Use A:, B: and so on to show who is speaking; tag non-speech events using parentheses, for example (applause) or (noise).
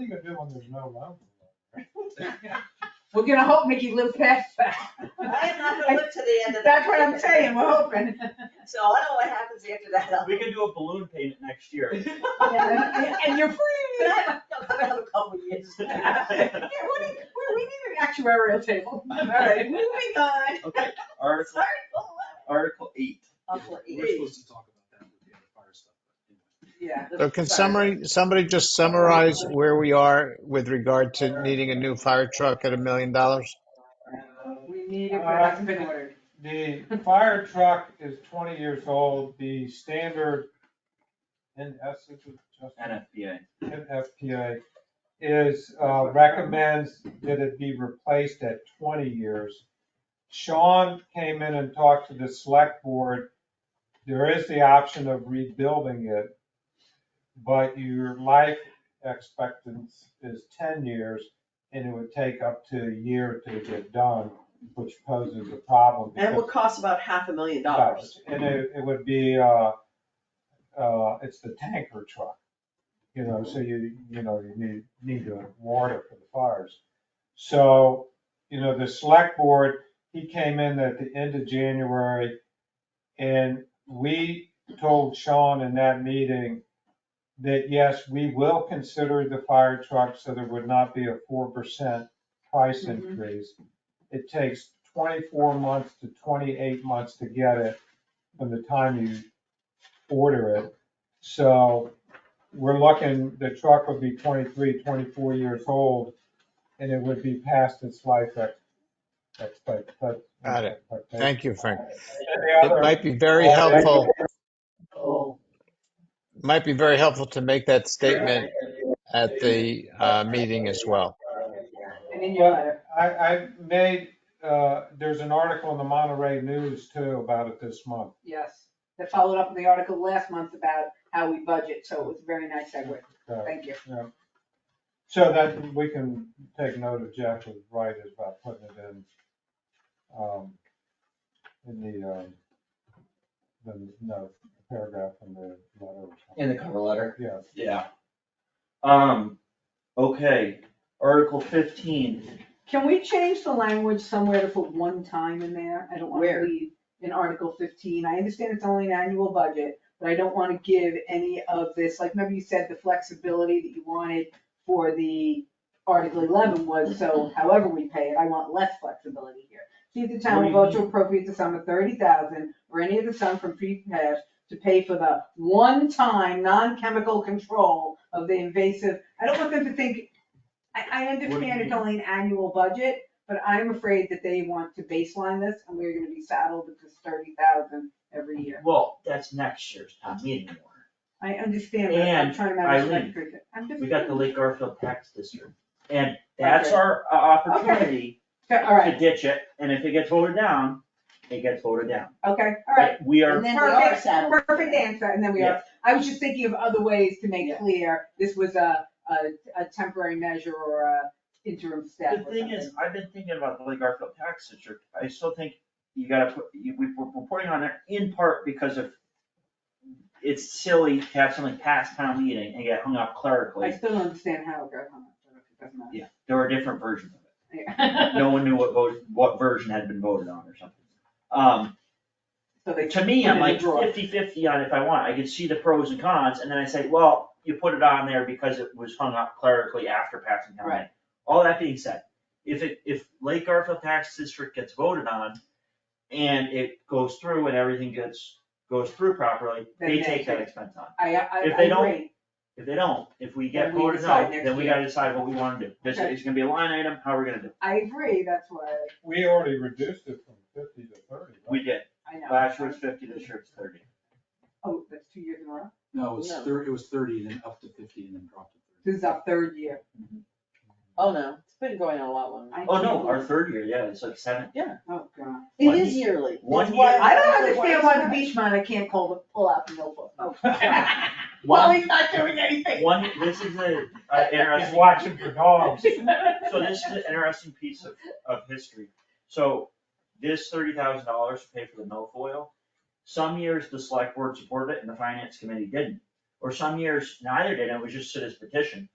A: you gonna do when there's no road?
B: We're gonna hope Mickey lives past that.
C: I'm not gonna live to the end of that.
B: That's what I'm saying, we're hoping.
C: So I don't know what happens after that. I'll-
D: We can do a balloon payment next year. (laughs)
B: Yeah, And you're
C: But I
B: free.
C: have a couple of years.
B: Yeah, what do you- we, we need an actuarial table. All right, moving on.
E: Okay, Article,
C: Sorry, oh,
E: Article eight.
C: Uncle E.
E: We're supposed to talk about that with the other fire stuff, but anyway.
B: Yeah.
F: So can summary, somebody just summarize where we are with regard to needing a new fire truck at a million dollars?
B: We need it, but it hasn't been ordered.
A: The fire truck is twenty years old, the standard NS, which is just
D: NFPA.
A: NFPA, is, uh, recommends that it be replaced at twenty years. Sean came in and talked to the select board. There is the option of rebuilding it, but your life expectancy is ten years, and it would take up to a year to get done, which poses a problem.
G: And it
A: because-
G: would cost about half a million dollars.
A: dollars, and it, it would be, uh, uh, it's the tanker truck. You know, so you, you know, you need, need to warn it for the fires. So, you know, the select board, he came in at the end of January, and we told Sean in that meeting that, yes, we will consider the fire truck, so there would not be a four percent price
B: Mhm.
A: increase. It takes twenty-four months to twenty-eight months to get it from the time you order it. So we're looking, the truck would be 23, 24 years old, and it would be past its life ex- expect, but.
F: Got it. Thank you, Frank.
A: Any
F: It
A: other-
F: might be very helpful,
B: Oh.
F: might be very helpful to make that statement at the uh, meeting as well.
B: And in your letter.
A: I, I made, uh, there's an article in the Monterey News too about it this month.
B: Yes, that followed up with the article last month about how we budget, so it was a very nice segue.
A: Uh,
B: Thank you.
A: So that, we can take note of Jeff was right about putting it in, um, in the, um, the, no, paragraph in the letter.
E: In the cover letter.
A: Yes.
D: Yeah. Um, okay, Article fifteen.
B: Can we change the language somewhere to put one time in there? I don't want to
G: Where?
B: leave in Article fifteen. I understand it's only an annual budget, but I don't want to give any of this, like, remember you said the flexibility that you wanted for the Article eleven was, so however we pay it, I want less flexibility here. See if the town will
D: What
B: vote
D: do you
B: to appropriate the sum of thirty thousand or any of the sum from free cash to pay for the one-time, non-chemical control of the invasive. I don't want them to think, I, I
D: do you
B: understand it's
D: mean?
B: only an annual budget, but I'm afraid that they want to baseline this and we're gonna be saddled with this thirty thousand every year.
D: Well, that's next year's town meeting warrant.
B: I understand that, I'm
D: And,
B: trying to manage
D: Eileen,
B: that. cricket. I'm just-
D: We got the Lake Garfield tax district. And that's our uh,
B: Okay.
D: opportunity
B: Okay, All
D: to
B: right,
D: ditch it. And if it gets voted down, it gets voted down.
B: okay, all right.
D: But We are,
C: And then we are
B: Perfect,
C: saddled.
B: Perfect answer, and then we are, I was just thinking of other ways to make
C: Yeah.
B: clear, this was a, a, a temporary measure or a interim step
D: the
B: or
D: thing is,
B: something.
D: I've been thinking about the Lake Garfield tax district. I still think you gotta put, you- we- we're reporting on it in part because of it's silly to have something pass town meeting and get hung up
B: I
D: clerically.
B: still don't understand how it got hung up, but it doesn't matter.
D: Yeah, there were different versions of it.
B: Yeah.
D: (laughs) no one knew what vote, what version had been voted on or something. Um,
B: So they
D: to me,
B: put it
D: I'm
B: in a
D: like
B: drawer.
D: 50-50 on if I want, I could see the pros and cons, and then I say, well, you put it on there because it was hung up clerically after passing town meeting. All that being said, if it, if Lake Garfield Tax District gets voted on, and it goes through and everything gets, goes through properly,
B: Then
D: they
B: they
D: take that
B: take-
D: expense on.
B: I, I,
D: If
B: I
D: they don't-
B: agree,
D: If they don't, if we get
B: Then we
D: voted
B: decide
D: on,
B: next
D: then we
B: year.
D: gotta decide what we wanna do, this
B: Okay.
D: is gonna be a line item, how we're gonna do it,
B: I agree, that's why,
A: We already reduced it from fifty to thirty. right?
D: we did,
B: I know.
D: last year was fifty, this year it's thirty.
B: Oh, that's two years in a row,
E: No, it was
C: No.
E: thirty, it was thirty, then up to fifty, and then dropped to thirty.
B: this is our third year.
C: Oh, no, it's been going on a lot longer.
B: I
D: Oh, no,
B: can't
D: our
B: believe-
D: third year, yeah, it's like seven.
B: Oh, God.
C: It is yearly. It's
D: One
C: why-
D: year.
B: I don't understand why the beach man, I can't pull, the- pull out the notebook. Oh. (laughs)
A: (laughs)
B: Well,
D: One,
B: he's not doing anything.
D: one, this is a, a
A: He's
D: interesting,
A: watching for dogs.
D: (laughs) so this is an interesting piece of, of history. So this thirty thousand dollars to pay for the milfoil, some years the select board supported it and the finance committee didn't. Or some years neither did, and it was just citizen petition.